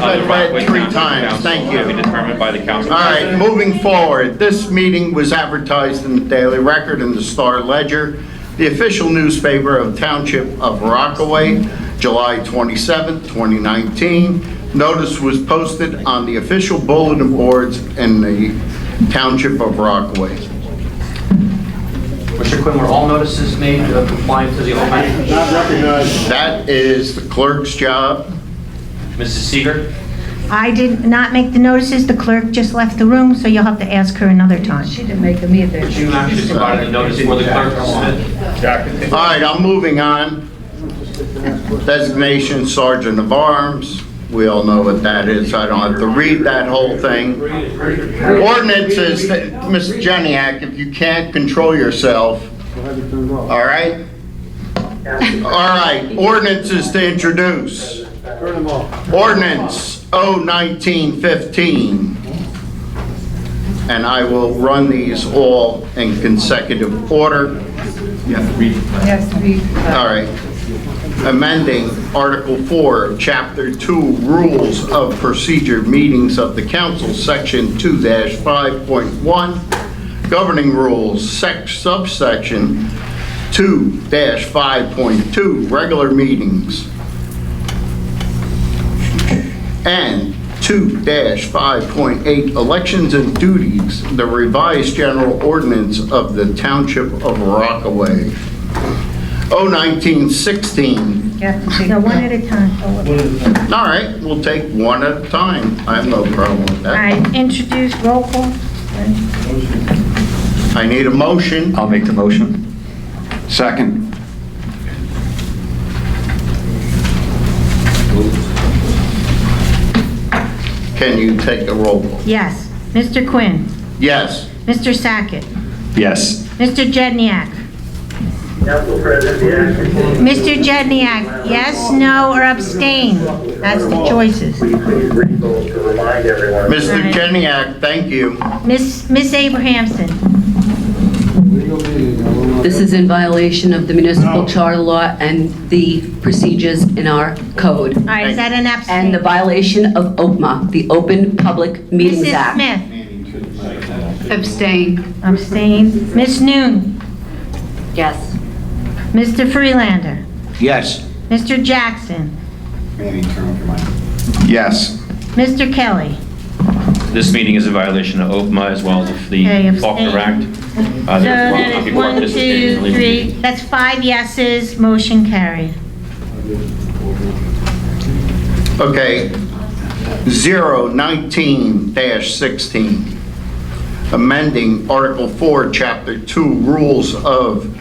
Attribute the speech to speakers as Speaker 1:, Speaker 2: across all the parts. Speaker 1: said that
Speaker 2: Right,
Speaker 1: three
Speaker 2: council,
Speaker 1: times,
Speaker 2: council,
Speaker 1: thank
Speaker 2: will be
Speaker 1: you.
Speaker 2: determined by the council.
Speaker 1: All right,
Speaker 2: president.
Speaker 1: moving forward, this meeting was advertised in the Daily Record and the Star Ledger, the official newspaper of Township of Rockaway, July 27, 2019. Notice was posted on the official bulletin boards in the Township of Rockaway.
Speaker 3: Mr. Quinn, were all notices made uh, compliant to the open?
Speaker 4: Not recognized.
Speaker 1: That is the clerk's job.
Speaker 3: Mrs. Seeger?
Speaker 5: I did not make the notices, the clerk just left the room, so you'll have to ask her another time.
Speaker 6: She didn't make them either.
Speaker 3: Did you actually provide the notice for the clerk, Smith?
Speaker 1: All right, I'm moving on. Designation Sergeant of Arms, we all know what that is, I don't have to read that whole thing. Ordinances, Ms. Jeniak, if you can't control yourself,
Speaker 4: I'll have it turned off.
Speaker 1: all right? All right, ordinances to introduce.
Speaker 4: Turn them off.
Speaker 1: Ordinance 01915. And I will run these all in consecutive order.
Speaker 6: Yes, we,
Speaker 1: All
Speaker 6: uh,
Speaker 1: right. Amending Article 4, of Chapter 2, Rules of Procedure Meetings of the Council, Section 2-5.1, Governing Rules, Sec- Subsection 2-5.2, Regular Meetings, and 2-5.8, Elections and Duties, the Revised General Ordinance of the Township of Rockaway. Oh, 01916.
Speaker 6: have to take
Speaker 5: No, one
Speaker 6: them.
Speaker 5: at a time.
Speaker 1: All right, we'll take one at a time. I have no problem with
Speaker 5: All
Speaker 1: that.
Speaker 5: right, introduce, roll call.
Speaker 1: I need a motion.
Speaker 7: I'll make the motion. Second.
Speaker 1: Can you take a roll? call?
Speaker 5: Yes, Mr. Quinn,
Speaker 1: Yes.
Speaker 5: Mr. Sackett,
Speaker 7: Yes.
Speaker 5: Mr. Jedniak. Mr. Jedniak, yes, no, or abstain? That's the choices.
Speaker 8: Please read those to remind everyone.
Speaker 1: Mr.
Speaker 5: Aye.
Speaker 1: Kenyak, thank you.
Speaker 5: Miss Miss Abrahamson,
Speaker 4: Legal meeting, I will not-
Speaker 9: This is in violation of the municipal charter law and the procedures in our code,
Speaker 5: all right, is that
Speaker 9: and
Speaker 5: an abstain?
Speaker 9: the violation of OPMA, the Open Public Meetings
Speaker 5: Mrs.
Speaker 9: Act.
Speaker 5: Smith,
Speaker 9: Abstain.
Speaker 5: abstain. Miss Noon,
Speaker 9: Yes.
Speaker 5: Mr. Freelander,
Speaker 7: Yes.
Speaker 5: Mr. Jackson,
Speaker 7: Yes.
Speaker 5: Mr. Kelly.
Speaker 2: This meeting is a violation of OPMA as well as the
Speaker 5: Okay, abstain.
Speaker 2: Faulkner Act. Uh,
Speaker 5: So
Speaker 2: therefore,
Speaker 5: that is
Speaker 2: people are
Speaker 5: one,
Speaker 2: participating in
Speaker 5: two,
Speaker 2: illegal-
Speaker 5: three, that's five yeses, motion carried.
Speaker 1: Okay. 019-16. Amending Article 4, Chapter 2, Rules of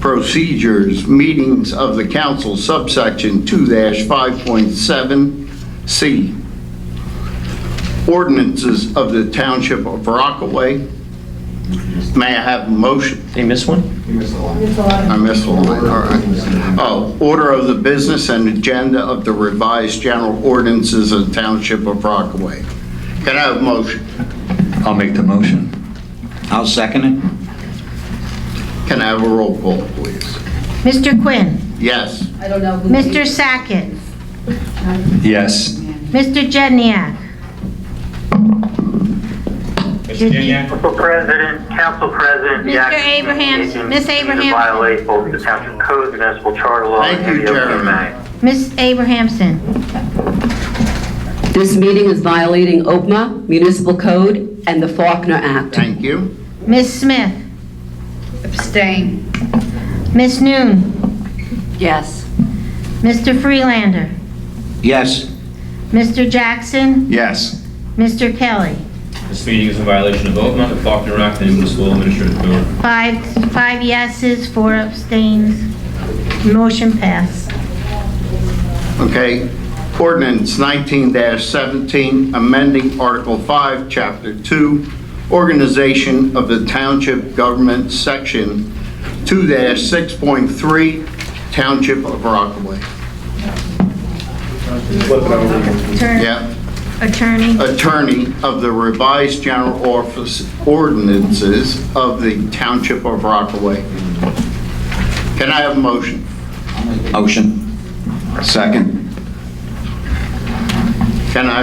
Speaker 1: Procedures, Meetings of the Council, subsection 2-5.7C. Ordinances of the Township of Rockaway. May I have a motion?
Speaker 2: Did I miss one?
Speaker 1: I missed one, all right. Oh, order of the business and agenda of the revised general ordinances of the Township of Rockaway. Can I have a motion?
Speaker 7: I'll make the motion. I'll second it.
Speaker 1: Can I have a roll call, please?
Speaker 5: Mr. Quinn,
Speaker 1: Yes.
Speaker 9: I don't know who...
Speaker 5: Mr. Sackett,
Speaker 7: Yes.
Speaker 5: Mr. Jedniak,
Speaker 2: Mr. Geniak?
Speaker 8: Council President, Council President.
Speaker 5: Mr.
Speaker 8: Jackson,
Speaker 5: Abrahams,
Speaker 8: in-
Speaker 5: Ms.
Speaker 8: in
Speaker 5: Abrahams.
Speaker 8: Violate both the township code, municipal charter law.
Speaker 1: Thank
Speaker 8: and
Speaker 1: you,
Speaker 8: the OPMA
Speaker 1: Jeremy.
Speaker 8: Act.
Speaker 5: Miss Abrahamson,
Speaker 9: This meeting is violating OPMA, municipal code, and the Faulkner Act.
Speaker 1: Thank you.
Speaker 5: Miss Smith,
Speaker 6: Abstain.
Speaker 5: Miss Noon,
Speaker 9: Yes.
Speaker 5: Mr. Freelander,
Speaker 7: Yes.
Speaker 5: Mr. Jackson,
Speaker 7: Yes.
Speaker 5: Mr. Kelly.
Speaker 2: This meeting is a violation of OPMA, the Faulkner Act, and municipal administrative code.
Speaker 5: Five, five yeses, four abstains, motion passed.
Speaker 1: Okay. Ordinance 19-17, amending Article 5, Chapter 2, Organization of the Township Government, Section 2-6.3, Township of Rockaway.
Speaker 5: Attorney-
Speaker 1: Yeah.
Speaker 5: Attorney,
Speaker 1: attorney of the revised general office ordinances of the Township of Rockaway. Can I have a motion?
Speaker 7: Motion. Second.
Speaker 1: Can I